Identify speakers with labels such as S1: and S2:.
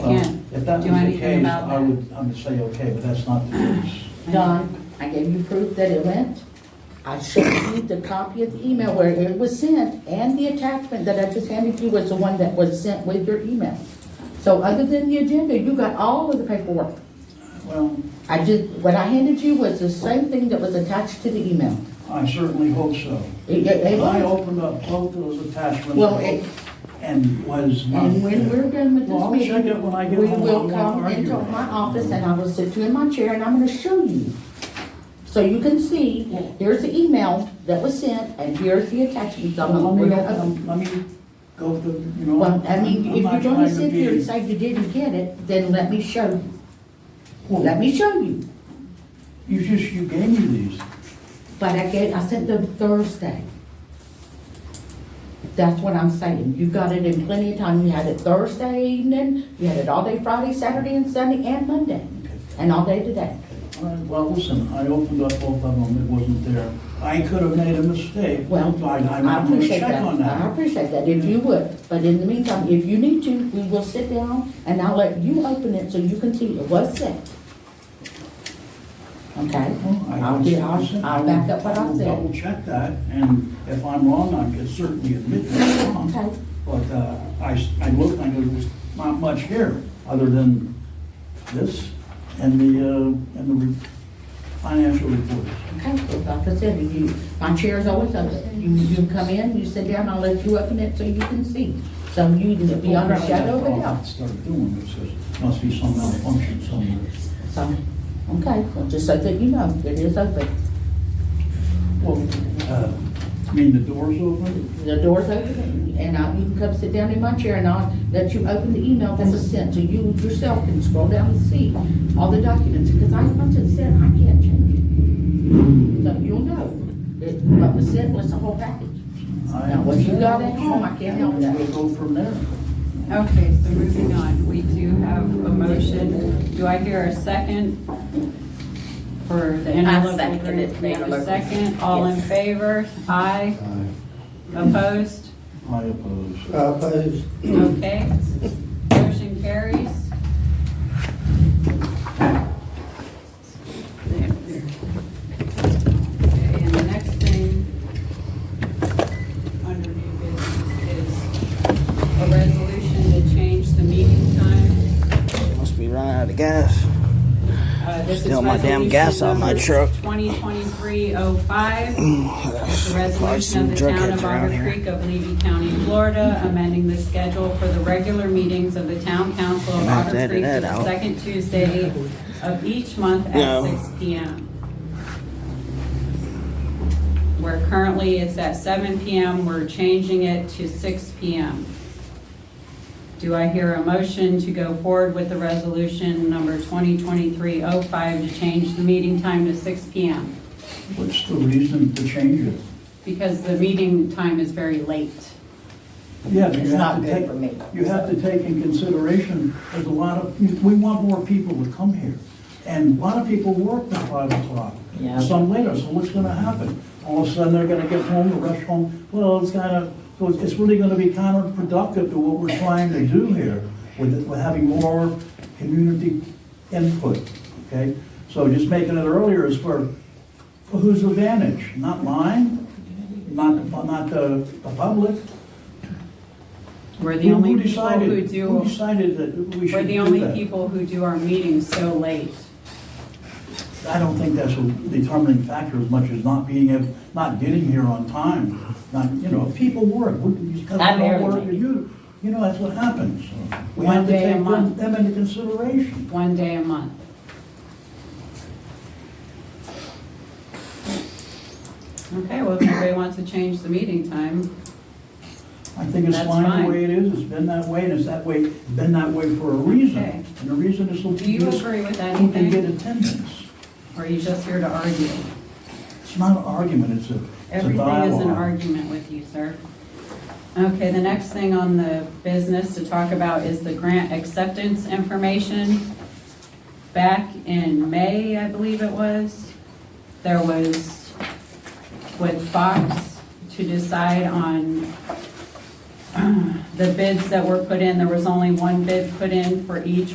S1: can't
S2: If that was
S1: do
S2: the
S1: anything
S2: case,
S1: about
S2: I
S1: that.
S2: would, I would say, okay, but that's not the case.
S3: Don, I gave you proof that it went. I showed you the copy of the email where it was sent, and the attachment that I just handed you was the one that was sent with your email. So other than the agenda, you got all of the paperwork.
S2: Well,
S3: I just, what I handed you was the same thing that was attached to the email.
S2: I certainly hope so.
S3: It- it- it
S2: I
S3: was.
S2: opened up both those
S3: Well, it-
S2: attachments and was not.
S3: And when we're done with
S2: Well,
S3: this
S2: I'll check it
S3: meeting,
S2: when I
S3: we
S2: get home. I
S3: will
S2: won't
S3: come
S2: argue
S3: into
S2: with
S3: my
S2: you.
S3: office and I will sit you in my chair and I'm gonna show you. So you can see, here's the email that was sent and here's the attachment. I'm
S2: Well,
S3: gonna-
S2: Let
S3: we're
S2: me,
S3: gonna-
S2: open- let me go through, you know.
S3: Well, I
S2: I'm-
S3: mean,
S2: I'm
S3: if
S2: not
S3: you're
S2: trying
S3: gonna
S2: to
S3: sit here
S2: be-
S3: and say you didn't get it, then let me show you.
S2: Well,
S3: Let me show you.
S2: You just, you gave me these.
S3: But I get, I sent them Thursday. That's what I'm saying. You got it in plenty of time. You had it Thursday evening, you had it all day Friday, Saturday, and Sunday, and Monday, and all day today.
S2: All right, Well, listen, I opened up both of them, it wasn't there. I could have made a mistake.
S3: Well,
S2: So I'm
S3: I
S2: not gonna
S3: appreciate
S2: check
S3: that.
S2: on
S3: I
S2: that.
S3: appreciate that, if you would. But in the meantime, if you need to, we will sit down and I'll let you open it so you can see it was sent. Okay?
S2: Oh, I-
S3: I'll, do- I'll,
S2: listen,
S3: I'll back up what
S2: I
S3: I
S2: will Double
S3: said.
S2: check that, and if I'm wrong, I can certainly admit that I'm wrong.
S3: Okay.
S2: But uh, I, s- I looked, I go, there's not much here, other than this and the, uh, and the re- financial reports.
S3: Okay, so like I said, you, my chair's always open. You, you come in, you sit down, I'll let you open it so you can see. So you can be
S2: Oh,
S3: on the shadow of a doubt.
S2: Started doing this, 'cause must be some malfunction somewhere.
S3: So, okay, well, just so that you know, it is open.
S2: Well, uh, I mean, the door's open?
S3: The door's open, and I, you can come sit down in my chair, and I'll let you open the email that was sent, so you yourself can scroll down and see all the documents, because I, once it's sent, I can't change it. So you'll know, it, what was sent was the whole package. Now, what you got at home, I can't help that.
S2: We'll go from there.
S1: Okay, so moving on, we do have a motion. Do I hear a second for the
S4: I
S1: interlocal
S4: second it,
S1: agreement?
S4: the
S1: We have a
S4: interlocal.
S1: second, all in
S4: Yes.
S1: favor? Aye, opposed?
S2: I oppose.
S5: Uh, Opposed?
S1: Okay, motion carries. There, there. Okay, and the next thing under new business is a resolution to change the meeting time.
S6: Must be running out of gas.
S1: Uh, this is
S6: Still my damn gas out of my
S1: resolution number
S6: truck.
S1: 2023-05. The
S6: Probably
S1: resolution
S6: some
S1: of the town
S6: jerkheads
S1: of
S6: around
S1: Otter
S6: here.
S1: Creek of Levy County, Florida, amending the schedule for the regular meetings of the town council of
S6: Gonna have to
S1: Otter
S6: edit
S1: Creek to
S6: that
S1: the
S6: out.
S1: second Tuesday of each month at
S6: No.
S1: six P M. Where currently it's at seven P M, we're changing it to six P M. Do I hear a motion to go forward with the resolution number 2023-05 to change the meeting time to six P M?
S2: What's the reason to change it?
S1: Because the meeting time is very late.
S2: Yeah, but you
S3: It's
S2: have
S3: not
S2: to
S3: good
S2: take-
S3: for me.
S2: You have to take in consideration, there's a lot of, we want more people to come here. And a lot of people work till five o'clock,
S3: Yeah.
S2: some later, so what's gonna happen? All of a sudden, they're gonna get home, rush home, well, it's kinda, so it's it's really gonna be counterproductive to what we're trying to do here with, with having more community input, okay? So just making it earlier is for, for whose advantage? Not mine, not, not the, the public.
S1: We're the
S2: Who-
S1: only
S2: who
S1: people who
S2: decided- Who
S1: do,
S2: decided that we
S1: we're
S2: should
S1: the
S2: do
S1: only
S2: that?
S1: people who do our meetings so late.
S2: I don't think that's a determining factor as much as not being, able- not getting here on time. Not, you know, people work, we- you come
S3: I
S2: out
S3: barely
S2: work,
S3: make it.
S2: you, you know, that's what happens. We
S1: One
S2: have to
S1: day a
S2: take them
S1: month.
S2: them into consideration.
S1: One day a month. Okay, well, if anybody wants to change the meeting time,
S2: I think it's
S1: That's
S2: fine
S1: fine.
S2: the way it is, it's been that way, and it's that way, been that way for a reason.
S1: Okay.
S2: And the reason is so
S1: do you
S2: people
S1: agree with
S2: who can get
S1: anything?
S2: attendance.
S1: Or are you just here to argue?
S2: It's not an argument, it's a, it's a
S1: Everything is an
S2: dialogue.
S1: argument with you, sir. Okay, the next thing on the business to talk about is the grant acceptance information. Back in May, I believe it was, there was with Fox to decide on the bids that were put in, there was only one bid put in for each